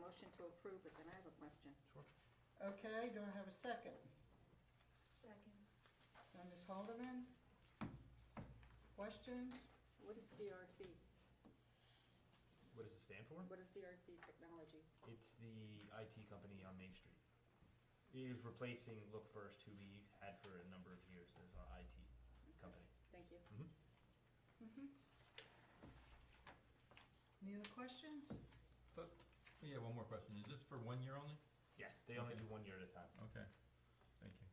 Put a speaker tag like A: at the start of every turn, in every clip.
A: motion to approve it, then I have a question.
B: Sure.
C: Okay, do I have a second?
D: Second.
C: Now, Ms. Haldeman? Questions?
A: What is DRC?
B: What does it stand for?
A: What is DRC Technologies?
B: It's the IT company on Main Street. It is replacing Look First, who we had for a number of years as our IT company.
A: Thank you.
B: Mhm.
C: Mm-hmm. Any other questions?
E: So, yeah, one more question. Is this for one year only?
B: Yes, they only
E: Okay.
B: do one year at a time.
E: Okay, thank you.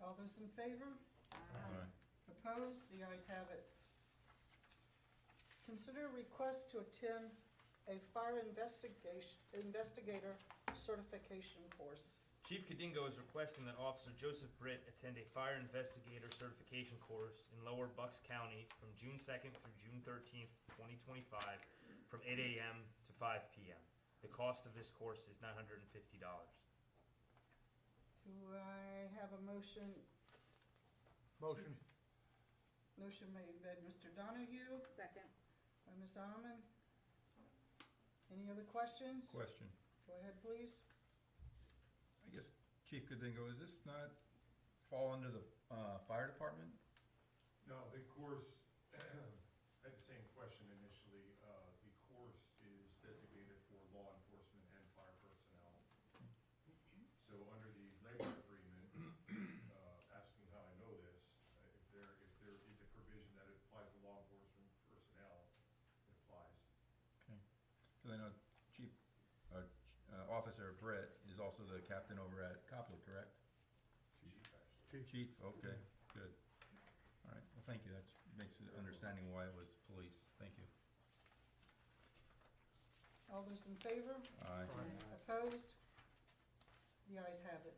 C: All those in favor?
A: Um,
E: Aye.
C: Opposed? The ayes have it. Consider a request to attend a fire investigation, investigator certification course.
B: Chief Kadingo is requesting that Officer Joseph Britt attend a fire investigator certification course in Lower Bucks County from June 2nd through June 13th, 2025, from 8 a.m. to 5 p.m. The cost of this course is $950.
C: Do I have a motion?
F: Motion.
C: Motion made by Mr. Donahue,
A: Second,
C: by Ms. Almond. Any other questions?
E: Question.
C: Go ahead, please.
E: I guess, Chief Kadingo, is this not fall under the uh, fire department?
G: No, the course, I had the same question initially. Uh, The course is designated for law enforcement and fire personnel. So under the labor agreement, uh, asking how I know this, uh, if there, if there is a provision that it applies to law enforcement personnel, it applies.
E: Okay. Because I know Chief, uh, Ch- uh, Officer Britt is also the captain over at Copland, correct?
G: Chief, actually.
E: Chief, okay, good. All right, well, thank you. That makes it understanding why it was police. Thank you.
C: All those in favor?
E: Aye.
C: Opposed? The ayes have it.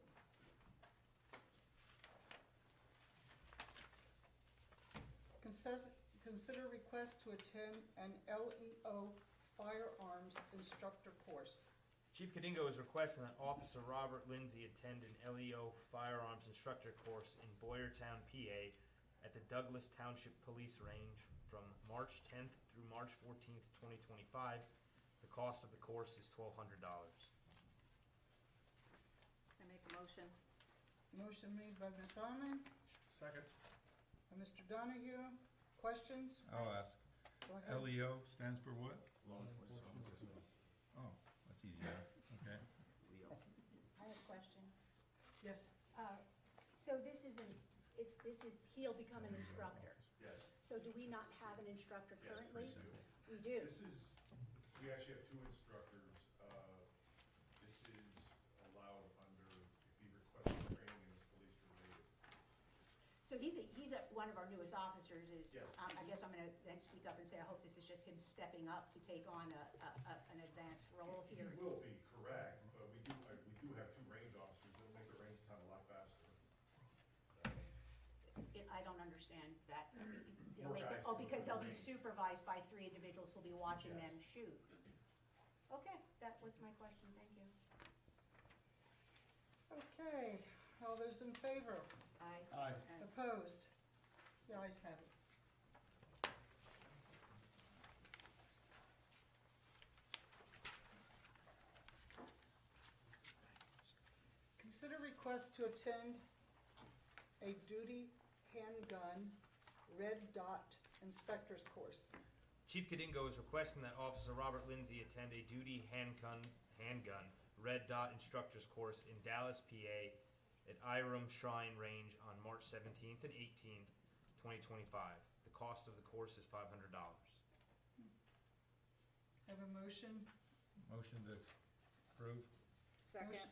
C: Consis- Consider request to attend an LEO firearms instructor course.
B: Chief Kadingo is requesting that Officer Robert Lindsay attend an LEO firearms instructor course in Boyertown, PA at the Douglas Township Police Range from March 10th through March 14th, 2025. The cost of the course is $1,200.
A: I make a motion.
C: Motion made by Ms. Arman,
G: Second.
C: by Mr. Donahue. Questions?
E: I'll ask.
C: Go ahead.
E: LEO stands for what?
G: Law enforcement.
E: Oh, that's easy enough. Okay.
D: I have a question.
C: Yes.
D: Uh, So this isn't, it's, this is, he'll become an instructor.
G: Yes,
D: So do we not have an instructor
G: yes,
D: currently?
G: we
D: We
G: do.
D: do.
G: This is, we actually have two instructors. Uh, This is allowed under, if he requests training in police related.
D: So he's a, he's a, one of our newest officers is,
G: Yes.
D: um, I guess I'm gonna then speak up and say, I hope this is just him stepping up to take on a, a, a- an advanced role
G: He
D: here.
G: will be correct, but we do, uh, we do have two range officers. We'll make the range time a lot faster.
D: It- I don't understand that. They'll
G: More
D: make it-
G: guys
D: Oh, because they'll be
G: than me.
D: supervised by three individuals who'll be watching
G: Yes.
D: them shoot. Okay, that was my question, thank you.
C: Okay, all those in favor?
D: Aye.
A: Aye.
C: Opposed? The ayes have it. Consider request to attend a duty handgun red dot inspector's course.
B: Chief Kadingo is requesting that Officer Robert Lindsay attend a duty handgun, handgun red dot instructor's course in Dallas, PA at Iram Shrine Range on March 17th and 18th, 2025. The cost of the course is $500.
C: Have a motion?
E: Motion to approve?
A: Second,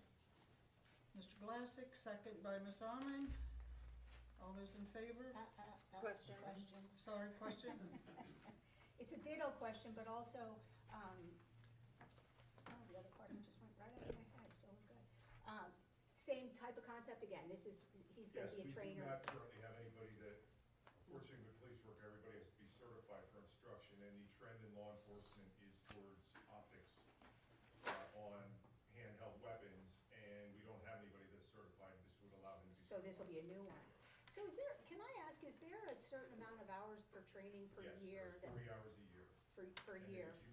C: Mr. Glassick, second by Ms. Amen. All those in favor?
D: Uh, uh, uh,
A: Question.
D: Question.
C: Sorry, question?
D: It's a ditto question, but also, um, oh, the other part of it just went right out of my head, so we're good. Um, Same type of concept again, this is, he's gonna
G: Yes,
D: be
G: we
D: a
G: do
D: trainer.
G: not currently have anybody that, unfortunately with police work, everybody has to be certified for instruction. And the trend in law enforcement is towards optics uh, on handheld weapons. And we don't have anybody that's certified. This would allow them to be.
D: So this will be a new one. So is there, can I ask, is there a certain amount of hours per training per
G: Yes,
D: year?
G: there's
D: that-
G: Three hours a year.
D: For, per
G: And
D: year?
G: if you